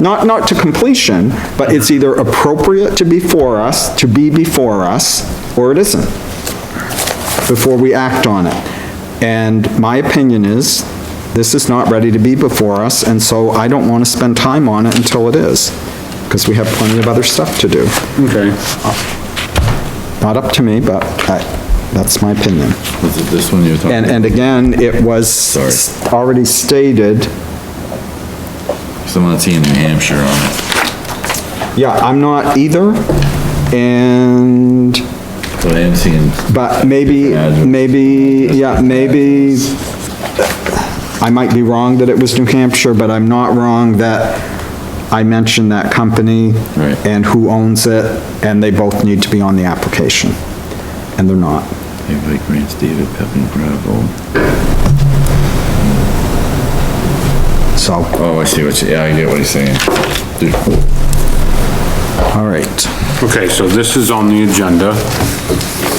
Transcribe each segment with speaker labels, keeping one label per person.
Speaker 1: not, not to completion, but it's either appropriate to be for us, to be before us, or it isn't, before we act on it. And my opinion is, this is not ready to be before us, and so I don't want to spend time on it until it is, because we have plenty of other stuff to do.
Speaker 2: Okay.
Speaker 1: Not up to me, but I, that's my opinion.
Speaker 3: Was it this one you were talking?
Speaker 1: And, and again, it
Speaker 3: Sorry.
Speaker 1: was already stated,
Speaker 3: Someone seeing New Hampshire on it,
Speaker 1: yeah, I'm not either, and
Speaker 3: but I am seeing,
Speaker 1: But maybe, maybe, yeah, maybe, I might be wrong that it was New Hampshire, but I'm not wrong that I mentioned that company
Speaker 3: Right.
Speaker 1: and who owns it, and they both need to be on the application, and they're not.
Speaker 3: everybody grants David Peppin Gravel.
Speaker 1: So,
Speaker 3: Oh, I see what you, yeah, I get what he's saying. Dude,
Speaker 1: all right,
Speaker 2: Okay, so this is on the agenda,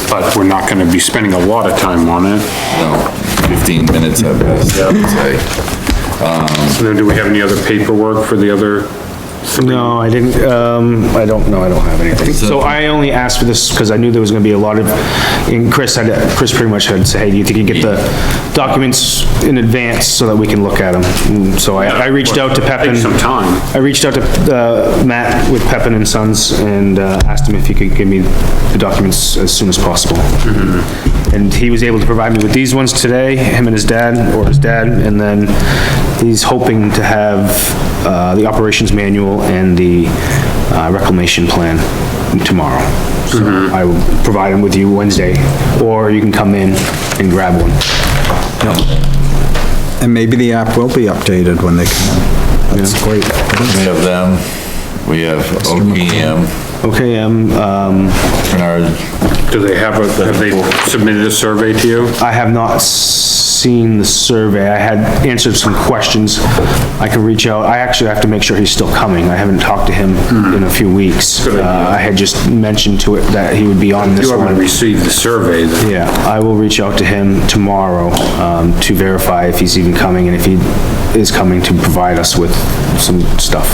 Speaker 2: but we're not gonna be spending a lot of time on it.
Speaker 3: No, fifteen minutes of this, I would say.
Speaker 2: So then do we have any other paperwork for the other?
Speaker 4: No, I didn't, um, I don't, know. I don't have anything. So I only asked for this because I knew there was gonna be a lot of, and Chris had, Chris pretty much had said, hey, do you think you can get the documents in advance so that we can look at them? And So I, I reached out to Pepin.
Speaker 2: Take some time.
Speaker 4: I reached out to, uh, Matt with Pepin and Sons and, uh, asked him if he could give me the documents as soon as possible. And he was able to provide me with these ones today, him and his dad, or his dad, and then he's hoping to have, uh, the operations manual and the uh, reclamation plan tomorrow. So I will provide them with you Wednesday, or you can come in and grab one.
Speaker 1: and maybe the app will be updated when they come in. That's great.
Speaker 3: We have them, we have OPM,
Speaker 4: Okay, um, um,
Speaker 3: Bernard,
Speaker 2: Do they have a, have they submitted a survey to you?
Speaker 4: I have not seen the survey. I had answered some questions. I can reach out. I actually have to make sure he's still coming. I haven't talked to him in a few weeks.
Speaker 2: Hmm. Good idea.
Speaker 4: Uh, I had just mentioned to it that he would be on this
Speaker 2: You haven't
Speaker 4: one.
Speaker 2: received the survey, then.
Speaker 4: Yeah, I will reach out to him tomorrow, um, to verify if he's even coming and if he is coming to provide us with some stuff.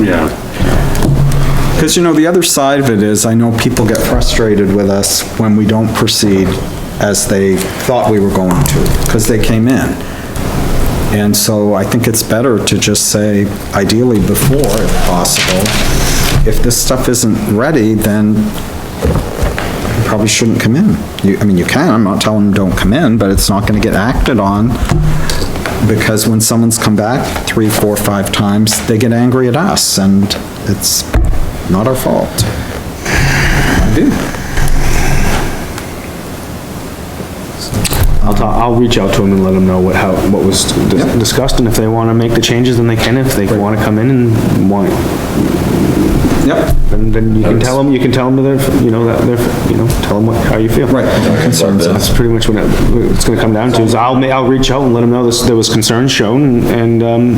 Speaker 2: yeah.
Speaker 1: Because, you know, the other side of it is, I know people get frustrated with us when we don't proceed as they thought we were going to, because they came in. And so I think it's better to just say, ideally before, if possible, if this stuff isn't ready, then you probably shouldn't come in. You, I mean, you can, I'm not telling them don't come in, but it's not gonna get acted on, because when someone's come back three, four, five times, they get angry at us, and it's not our fault. I do.
Speaker 4: I'll talk, I'll reach out to him and let him know what, how, what was dis- discussed and if they wanna make the changes, then they can. If they wanna come in and want,
Speaker 1: Yep,
Speaker 4: And then you can tell them, you can tell them that, you know, that, they're you know, tell them what, how you feel.
Speaker 1: right, no concerns.
Speaker 4: That's pretty much what it- what it's gonna come down to, is I'll, ma- I'll reach out and let them know this, there was concern shown, and, um,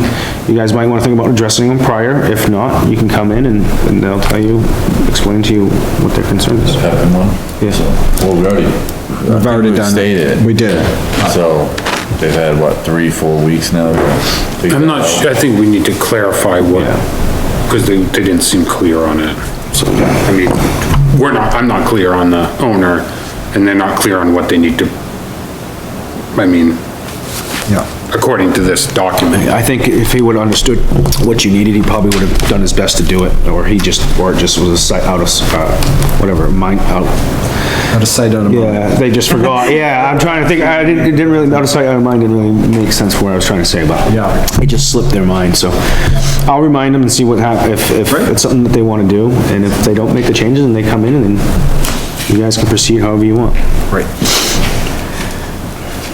Speaker 4: you guys might wanna think about addressing them prior, if not, you can come in and, and they'll tell you, explain to you what their concern is.
Speaker 3: Peppin one?
Speaker 4: Yes.
Speaker 3: Well, we already.
Speaker 1: We've already done
Speaker 3: Stated.
Speaker 1: it. We did.
Speaker 3: So, they've had what, three, four weeks now?
Speaker 2: I'm not, su- I think we need to clarify what, because they, they didn't seem clear on it. So, I mean, we're not, I'm not clear on the owner, and they're not clear on what they need to, I mean,
Speaker 1: Yeah,
Speaker 2: according to this document.
Speaker 4: I think if he would've understood what you needed, he probably would've done his best to do it, or he just, or it just was a sight out of, s- uh, whatever, mind, out,
Speaker 1: out of sight, out of mind.
Speaker 4: Yeah, they just forgot. Yeah, I'm trying to think, I didn't, it didn't really, out of sight, out of mind, didn't really make sense for what I was trying to say, but.
Speaker 1: Yeah.
Speaker 4: It just slipped their mind, so I'll remind them and see what hap, if, if it's something that they wanna do, and if they don't make the changes and they come in and then you guys can proceed however you want.
Speaker 1: Right.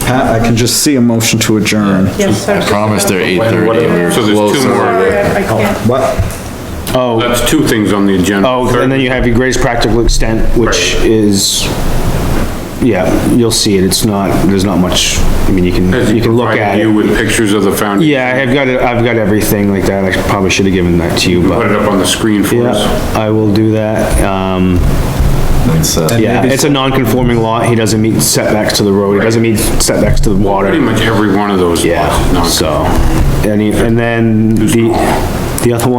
Speaker 1: Pat, I can just see a motion to adjourn.
Speaker 5: Yes,
Speaker 3: I promised they're eight thirty.
Speaker 2: So there's two more.
Speaker 5: I can't.
Speaker 1: What?
Speaker 4: Oh,
Speaker 2: That's two things on the agenda.
Speaker 4: oh, and then you have your greatest practical extent, which
Speaker 2: Right.
Speaker 4: is, yeah, you'll see it, it's not, there's not much, I mean, you
Speaker 2: Has
Speaker 4: can,
Speaker 2: he
Speaker 4: you can look
Speaker 2: provided
Speaker 4: at
Speaker 2: You
Speaker 4: it.
Speaker 2: with pictures of the foundation.
Speaker 4: Yeah, I've got it, I've got everything like that, I probably should've given that to you, but.
Speaker 2: Put it up on the screen for us.
Speaker 4: Yeah, I will do that. Um, yeah, it's a non-conforming lot. He doesn't meet setbacks to the road. He doesn't meet setbacks to the
Speaker 2: Pretty
Speaker 4: water.
Speaker 2: much every one of those. lots,
Speaker 4: Yeah,
Speaker 2: non-
Speaker 4: so, and, he- and then the, The other one